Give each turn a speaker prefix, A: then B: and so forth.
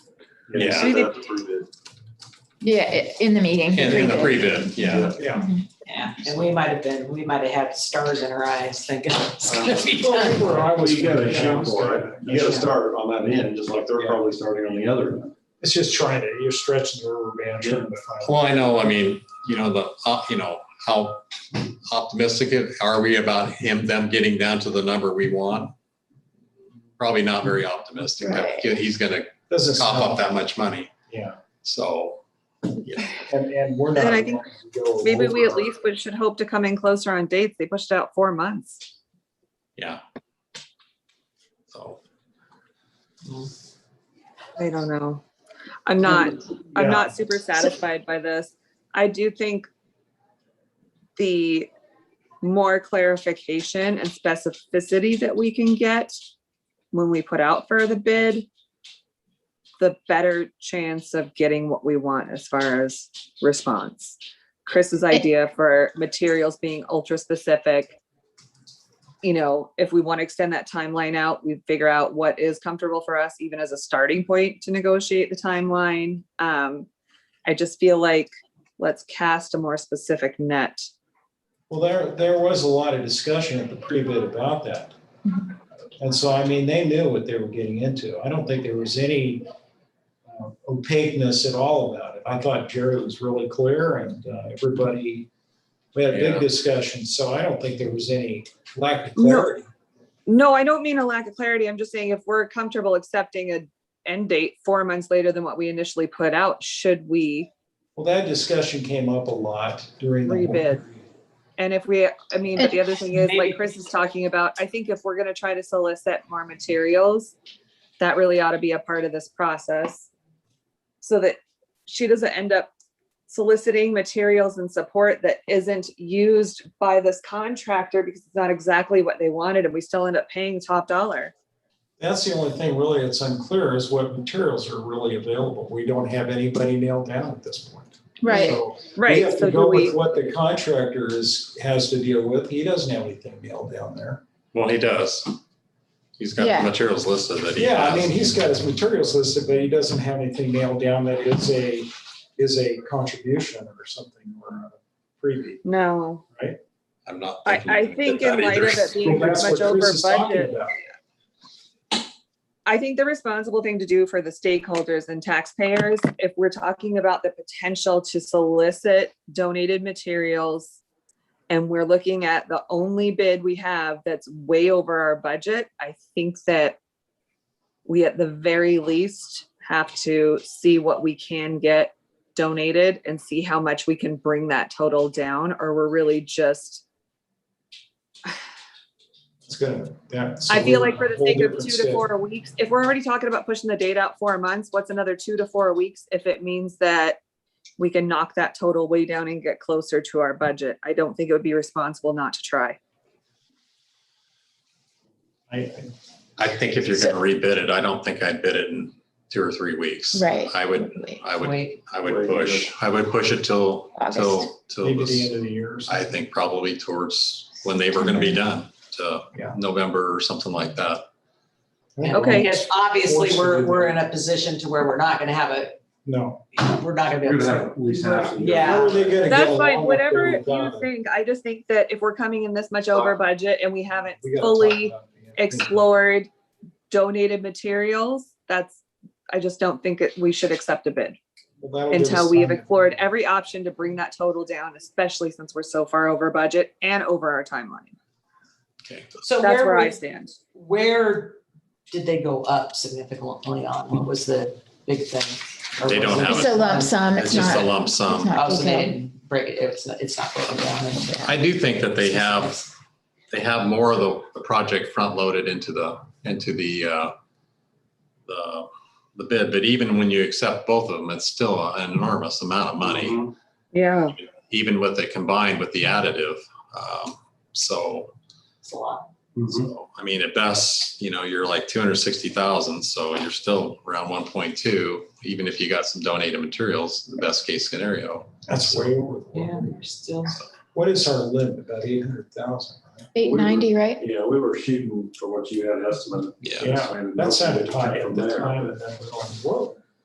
A: Yeah.
B: Yeah.
A: See, they-
C: Yeah, i- in the meeting.
B: In, in the pre-bid, yeah.
A: Yeah.
D: Yeah, and we might have been, we might have had stars in our eyes thinking it's gonna be done.
A: Well, I was-
E: You gotta shoot for it. You gotta
A: Yeah.
E: start on that end, just like they're probably starting on the other end.
A: It's just trying to, you're stretching the rubber band trying to find.
B: Well, I know, I mean, you know, the, uh, you know, how optimistic it- are we about him, them getting down to the number we want? Probably not very optimistic. that
C: Right.
B: He's gonna
A: Doesn't
B: cough up
A: sound,
B: that much money.
A: yeah,
B: So,
A: and, and we're not.
F: Then I think
A: going to go
F: Maybe we at
A: over.
F: least would, should hope to come in closer on dates. They pushed out four months.
B: yeah. So,
F: I don't know. I'm not,
A: Yeah.
F: I'm not super satisfied by this. I do think the more clarification and specificity that we can get when we put out for the bid, the better chance of getting what we want as far as response. Chris's idea for materials being ultra specific. You know, if we want to extend that timeline out, we figure out what is comfortable for us, even as a starting point to negotiate the timeline. Um, I just feel like let's cast a more specific net.
A: Well, there, there was a lot of discussion at the pre-bid about that.
F: Mm-hmm.
A: And so, I mean, they knew what they were getting into. I don't think there was any uh, opaqueness at all about it. I thought Jerry was really clear and uh, everybody, we had a
B: Yeah.
A: big discussion, so I don't think there was any lack of
F: No.
A: clarity.
F: No, I don't mean a lack of clarity. I'm just saying if we're comfortable accepting a end date four months later than what we initially put out, should we
A: Well, that discussion came up a lot during the.
F: Pre-bid. And if we, I mean, but the other thing is,
D: Maybe.
F: like Chris is talking about, I think if we're gonna try to solicit more materials, that really ought to be a part of this process. So that she doesn't end up soliciting materials and support that isn't used by this contractor because it's not exactly what they wanted and we still end up paying top dollar.
A: That's the only thing really that's unclear is what materials are really available. We don't have anybody nailed down at this point.
C: Right,
A: So We
F: Right,
A: have to
F: so do
A: go with
F: we,
A: what the contractor is, has to deal with. He doesn't have anything nailed down there.
B: well, he does. He's got
C: Yeah.
B: the materials listed that he
A: Yeah, I mean,
B: has.
A: he's got his materials listed, but he doesn't have anything nailed down that is a, is a contribution or something or a freebie.
F: no,
B: I'm not.
F: I,
B: thinking
F: I
B: that
F: think
B: that
F: in light
B: either.
F: of it being
A: That's
F: much
A: what
F: over
A: Chris is talking
F: budget.
A: about.
F: I think the responsible thing to do for the stakeholders and taxpayers, if we're talking about the potential to solicit donated materials and we're looking at the only bid we have that's way over our budget, I think that we at the very least have to see what we can get donated and see how much we can bring that total down, or we're really just,
A: It's gonna, yeah. so
F: I feel
A: we're
F: like for the
A: whole
F: sake of
A: different
F: two
A: state.
F: to four weeks, if we're already talking about pushing the date out four months, what's another two to four weeks if it means that we can knock that total way down and get closer to our budget? I don't think it would be responsible not to try.
A: I-
B: I think if you're gonna rebid it, I don't think I'd bid it in two or three weeks.
C: right.
B: I would, I would
D: Wait,
B: I would
E: Wait,
B: push, I would push it till,
C: August.
B: till, till,
A: Maybe the
B: this-
A: end of the year. or something.
B: I think probably towards when they were gonna be done, to
A: Yeah.
B: November or something like that.
F: Okay.
D: because obviously, we're, we're in a position to where we're not gonna have a,
A: No.
D: we're not gonna be able to. Yeah.
A: How are they gonna get
F: That's
A: along
F: fine,
A: with
F: whatever
A: their
F: you
A: daughter?
F: think. I just think that if we're coming in this much over budget and we haven't
A: We gotta talk
F: fully
A: about Mm-hmm. the-
F: explored donated materials, that's, I just don't think that we should accept a bid
A: Well, that'll give
F: until
A: us
F: we have
A: time.
F: explored every option to bring that total down, especially since we're so far over budget and over our timeline.
D: So
F: That's
D: where,
F: where I
D: would-
F: stand.
D: where did they go up significantly on? What was the big thing? Or
B: They
D: was
B: don't
D: it-
B: have
C: It's a lump sum,
B: It's
C: it's
B: just a
C: not.
B: lump
C: it's
B: sum.
C: not
D: Oh, so they
C: detailed.
D: didn't break it, it's, not- it's not broken down. into-
B: I do think that they have, they have more of the, the project front loaded into the, into the, uh, the, the bid, but even when you accept both of them, it's still an enormous amount of money.
A: Mm-hmm.
F: Yeah.
B: even with it combined with the additive. Um, so,
D: It's a lot.
B: so, I mean, at best, you know, you're like 260,000. So you're still around 1.2, even if you got some donated materials, the best case scenario.
A: That's way over. the
D: Yeah,
A: limit.
D: they're still.
A: What is our limit? About eight hundred thousand, right?
C: Eight ninety, right?
E: Yeah, we were shooting for what you had estimated.
B: Yeah.
A: Yeah, that sounded high at
E: From
A: the
E: there.
A: time and then we're going, whoa.